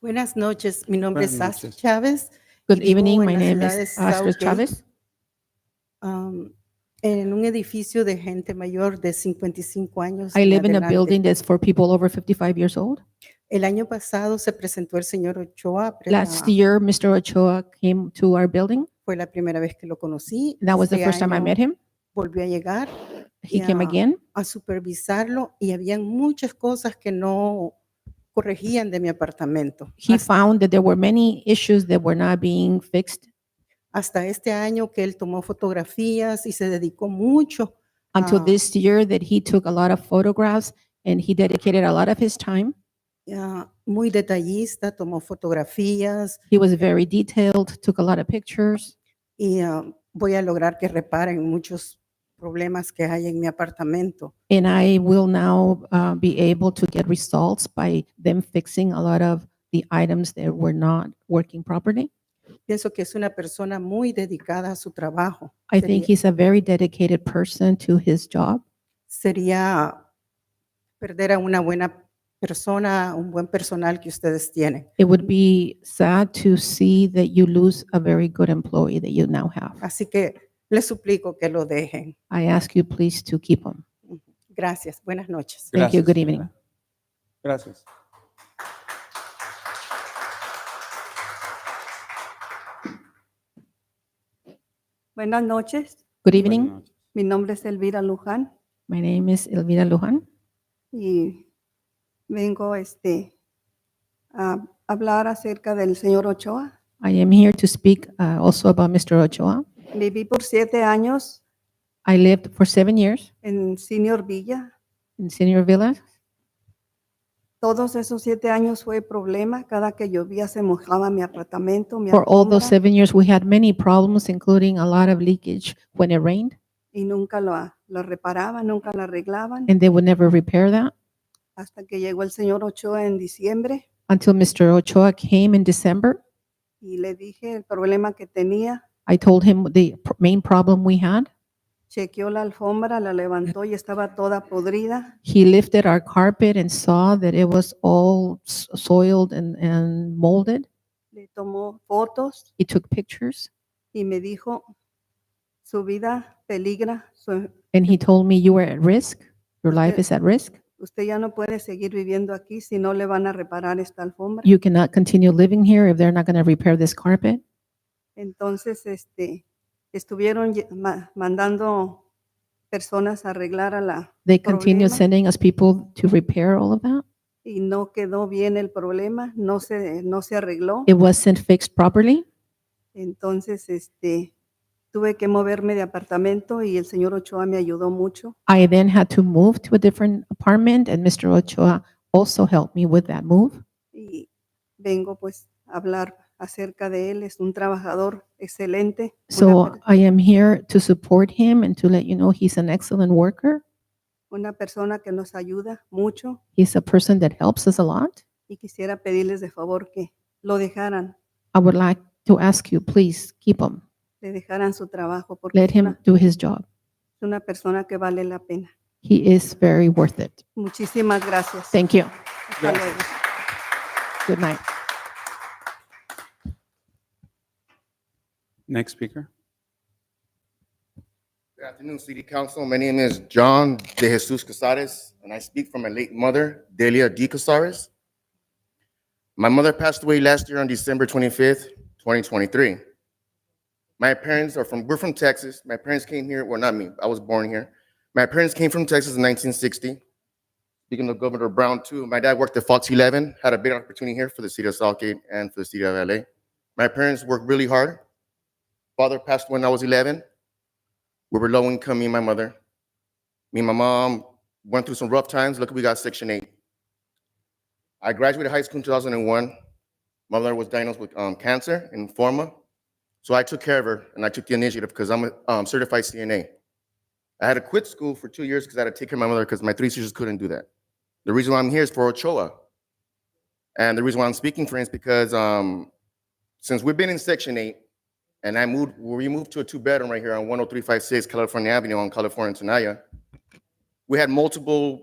Buenas noches, mi nombre es Buenas Sasha noches. Chávez. Good Vivo evening, en my la name ciudad is de Oscar Southgate. Chavez. um, en un edificio de gente mayor de 55 años. I en live in a adelante. building that's for people over 55 years old. El año pasado se presentó el señor Ochoa. pero, Last ah, year, Mr. Ochoa came to our building. Fue la primera vez que lo conocí. That was the Este first time I año met him. Volvió a llegar He came Yeah. again. a supervisarlo y habían muchas cosas que no corregían de mi apartamento. He Hasta- found that there were many issues that were not being fixed hasta este año que él tomó fotografías y se dedicó mucho until Ah. this year that he took a lot of photographs and he dedicated a lot of his time. ah, muy detallista, tomó fotografías He was very detailed, took a lot of pictures. y ah, voy a lograr que reparen muchos problemas que hay en mi apartamento. And I will now uh, be able to get results by them fixing a lot of the items that were not working properly. Pienso que es una persona muy dedicada a su trabajo. I think Sería- he's a very dedicated person to his job. Sería perder a una buena persona, un buen personal que ustedes tienen. It would be sad to see that you lose a very good employee that you now have. Así que les suplico que lo dejen. I ask you please to keep him. Gracias. Buenas noches. Thank you. Gracias. Good evening. Gracias. Buenas noches, Good Buenas evening. noches. mi nombre es Elvira Luján My name is Elvira Luján. y vengo este, a hablar acerca del señor Ochoa. I am here to speak uh, also about Mr. Ochoa. Viví por siete años I lived for seven years en Senior Villa. in Senior Villa. Todos esos siete años fue problema. Cada que llovía se mojaba mi apartamento, mi For all those alfombra, seven years, we had many problems, including a lot of leakage when it rained, y nunca lo, lo reparaban, nunca lo arreglaban. and they would never repair that Hasta que llegó el señor Ochoa en diciembre until Mr. Ochoa came in December. y le dije el problema que tenía. I told him the pr- main problem we had. Chequeó la alfombra, la levantó y estaba toda podrida. He lifted our carpet and saw that it was all s- soiled and, and molded. Le tomó fotos. He took pictures y me dijo, su vida peligra, su- and he told me, You are at risk. Your life Okay. is at risk. usted ya no puede seguir viviendo aquí si no le van a reparar esta alfombra. You cannot continue living here if they're not going to repair this carpet. Entonces, este, estuvieron lle- ma- mandando personas a arreglar a la They continue Problema. sending us people to repair all of that. y no quedó bien el problema, no se, no se arregló. It wasn't fixed properly. Entonces, este, tuve que moverme de apartamento y el señor Ochoa me ayudó mucho. I then had to move to a different apartment, and Mr. Ochoa also helped me with that move. y vengo pues a hablar acerca de él. Es un trabajador excelente. una So per- I am here to support him and to let you know he's an excellent worker. una persona que nos ayuda mucho He's a person that helps us a lot. y quisiera pedirles de favor que lo dejaran, I would like to ask you, please keep him. le dejaran su trabajo porque Let es him una, do his job. es una persona que vale la pena. He is very worth it. Muchísimas gracias. Thank you. Hasta Gracias. luego. Good night. Next speaker. Good afternoon, City Council. My name is John De Jesus Casares, and I speak for my late mother, Delia D. Casares. My mother passed away last year on December 25th, 2023. My parents are from, we're from Texas. My parents came here, well, not me, I was born here. My parents came from Texas in 1960. Speaking of Governor Brown, too, my dad worked at Fox 11, had a big opportunity here for the city of Southgate and for the city of LA. My parents worked really hard. Father passed when I was 11 we were low income, me and my mother. Me and my mom went through some rough times. Luckily, we got Section 8. I graduated high school in 2001. My mother was diagnosed with um, cancer and lymphoma. So I took care of her and I took the initiative because I'm a um, certified CNA. I had to quit school for two years because I had to take care of my mother because my three sisters couldn't do that. The reason why I'm here is for Ochoa. And the reason why I'm speaking for him is because um, since we've been in Section 8, and I moved, we moved to a oh two-bedroom right here on 10356 California Avenue on California and Tenaya. We had multiple